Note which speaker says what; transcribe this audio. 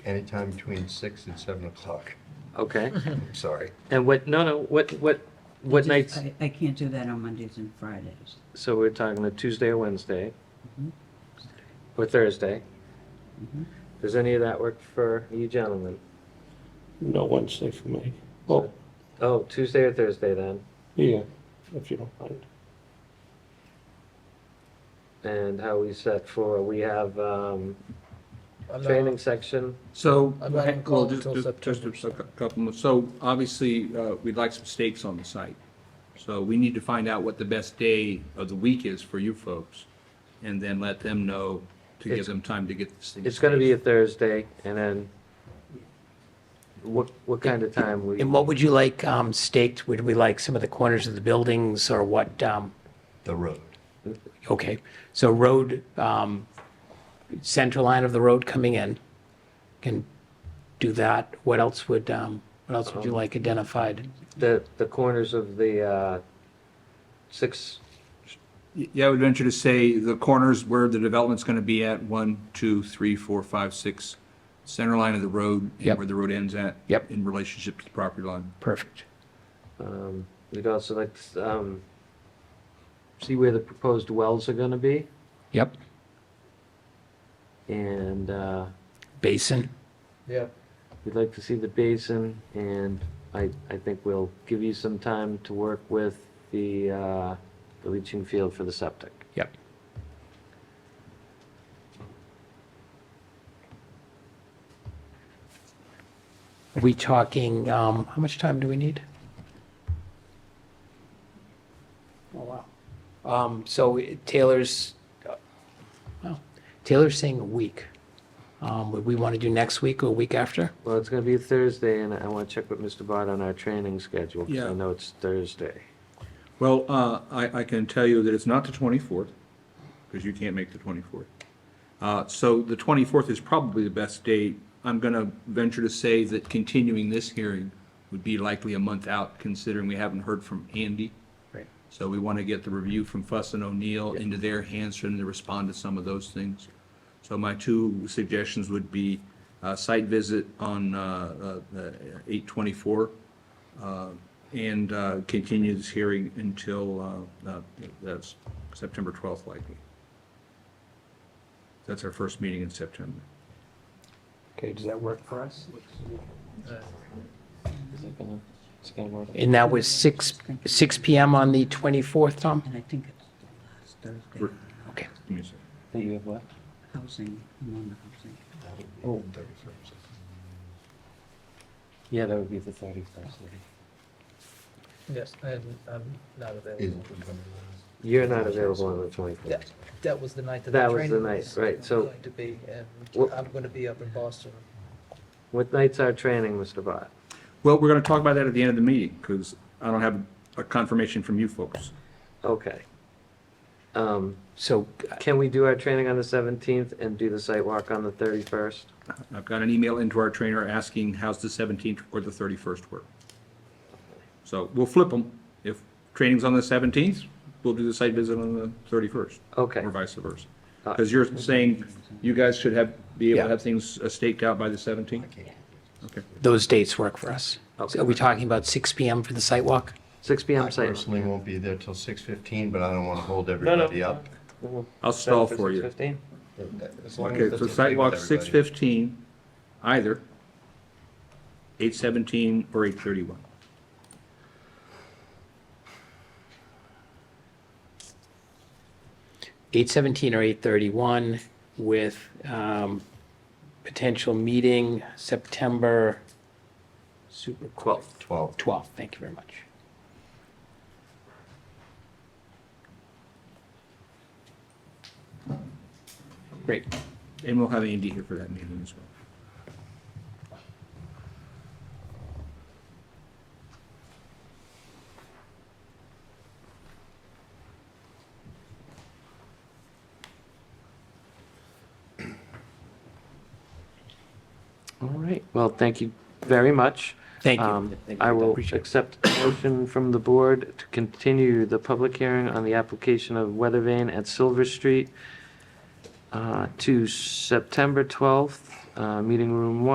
Speaker 1: anytime between six and seven o'clock.
Speaker 2: Okay.
Speaker 1: I'm sorry.
Speaker 2: And what, no, no, what, what, what
Speaker 3: Just-
Speaker 2: nights?
Speaker 3: I, I can't do that on Mondays and Fridays.
Speaker 2: So we're talking a Tuesday or Wednesday?
Speaker 3: Mhm.
Speaker 2: Or Thursday?
Speaker 3: Mhm.
Speaker 2: Does any of that work for you gentlemen?
Speaker 4: No Wednesday for me. Well,
Speaker 2: Oh, Tuesday or Thursday then?
Speaker 4: yeah, if you don't mind.
Speaker 2: And how we set for, we have, um,
Speaker 5: I'm not-
Speaker 2: training section.
Speaker 6: So,
Speaker 5: I'm not on
Speaker 6: well,
Speaker 5: call
Speaker 6: just,
Speaker 5: until
Speaker 6: just- just
Speaker 5: September.
Speaker 6: a cou- couple more. So obviously, uh, we'd like some stakes on the site. So we need to find out what the best day of the week is for you folks and then let them know to give
Speaker 2: It's-
Speaker 6: them time to get this thing.
Speaker 2: It's gonna be a
Speaker 6: staged.
Speaker 2: Thursday and then what, what kind of time we?
Speaker 7: And what would you like um, staked? Would we like some of the corners of the buildings or what? um,
Speaker 1: The road.
Speaker 7: Okay, so road, um, center line of the road coming in, can do that. What else would, um, what else would you like identified?
Speaker 2: The, the corners of the, uh, six,
Speaker 6: Yeah, I would venture to say the corners where the development's gonna be at, one, two, three, four, five, six, center line of the road and
Speaker 7: Yep.
Speaker 6: where the road ends at.
Speaker 7: Yep.
Speaker 6: In relationship to the property line.
Speaker 7: Perfect.
Speaker 2: Um, We'd also like to um, see where the proposed wells are going to be
Speaker 7: Yep,
Speaker 2: and uh,
Speaker 7: basin.
Speaker 5: Yeah,
Speaker 2: we'd like to see the basin and I, I think we'll give you some time to work with the, uh, the leaching field for the septic.
Speaker 7: Yep. Are we talking, um, how much time do we need? Oh, wow. Um, so Taylor's, uh, well, Taylor's saying a week. Um, would we want to do next week or week after?
Speaker 2: Well, it's going to be Thursday and I want to check with Mr. Bott on our training schedule because I
Speaker 6: Yeah.
Speaker 2: know it's Thursday.
Speaker 6: Well, uh, I, I can tell you that it's not the 24th, because you can't make the 24th. Uh, So the 24th is probably the best date. I'm going to venture to say that continuing this hearing would be likely a month out, considering we haven't heard from Andy.
Speaker 7: Right.
Speaker 6: So we want to get the review from Fuss and O'Neill into their hands for them to respond to some of those things. So my two suggestions would be uh, site visit on uh, uh, uh, 8/24 uh, and uh, continue this hearing until uh, uh, that's September 12th likely. That's our first meeting in September.
Speaker 7: Okay, does that work for us? And
Speaker 2: And
Speaker 7: that was six, six PM on the twenty-fourth, Tom?
Speaker 3: And I think it's the last Thursday,
Speaker 6: We're-
Speaker 7: Okay.
Speaker 6: Give me a second.
Speaker 2: That you have what?
Speaker 3: housing, I'm on the housing.
Speaker 1: That would be the 31st.
Speaker 2: Yeah, that would be the thirty-first.
Speaker 5: yes, and I'm not
Speaker 1: Is
Speaker 5: available.
Speaker 1: it the 21st?
Speaker 2: You're not available on the twenty-fourth.
Speaker 5: That, that was the night that.
Speaker 2: That
Speaker 5: the
Speaker 2: was
Speaker 5: training
Speaker 2: the night, right, so-
Speaker 5: Going to be, and
Speaker 2: Wha-
Speaker 5: I'm gonna be up in Boston.
Speaker 2: What night's our training, Mr. Bott?
Speaker 6: Well, we're going to talk about that at the end of the meeting because I don't have a confirmation from you folks.
Speaker 2: Okay. Um,
Speaker 7: So
Speaker 2: Can we do our training on the 17th and do the site walk on the 31st?
Speaker 6: I've got an email into our trainer asking how's the 17th or the 31st work? So we'll flip them. If training's on the 17th, we'll do the site visit on the 31st.
Speaker 2: Okay,
Speaker 6: Or vice versa.
Speaker 2: Uh,
Speaker 6: Because you're saying you guys should have, be able
Speaker 7: Yeah.
Speaker 6: to have things uh, staked out by the 17th? Okay.
Speaker 7: those dates work for us.
Speaker 2: Okay.
Speaker 7: So Are we talking about 6 PM for the site walk?
Speaker 2: 6
Speaker 1: I
Speaker 2: PM site. walk.
Speaker 1: personally won't be there till 6:15, but I don't want to hold everybody up.
Speaker 6: I'll stall for you.
Speaker 2: 6:15?
Speaker 1: As long as
Speaker 6: Okay,
Speaker 1: that's
Speaker 6: so
Speaker 1: okay
Speaker 6: site
Speaker 1: with
Speaker 6: walk
Speaker 1: everybody.
Speaker 6: 6:15, either 8:17 or 8:31.
Speaker 7: Eight seventeen or eight thirty-one with um, potential meeting September super quick.
Speaker 1: 12.
Speaker 7: 12, thank you very much. Great.
Speaker 6: And we'll have Andy here for that meeting as well.
Speaker 2: All right, well, thank you very much.
Speaker 7: Thank
Speaker 2: Um,
Speaker 7: you.
Speaker 2: I will
Speaker 7: Appreciate it.
Speaker 2: accept a motion from the board to continue the public hearing on the application of Weathervane at Silver Street uh, to September 12th, uh, meeting room 1.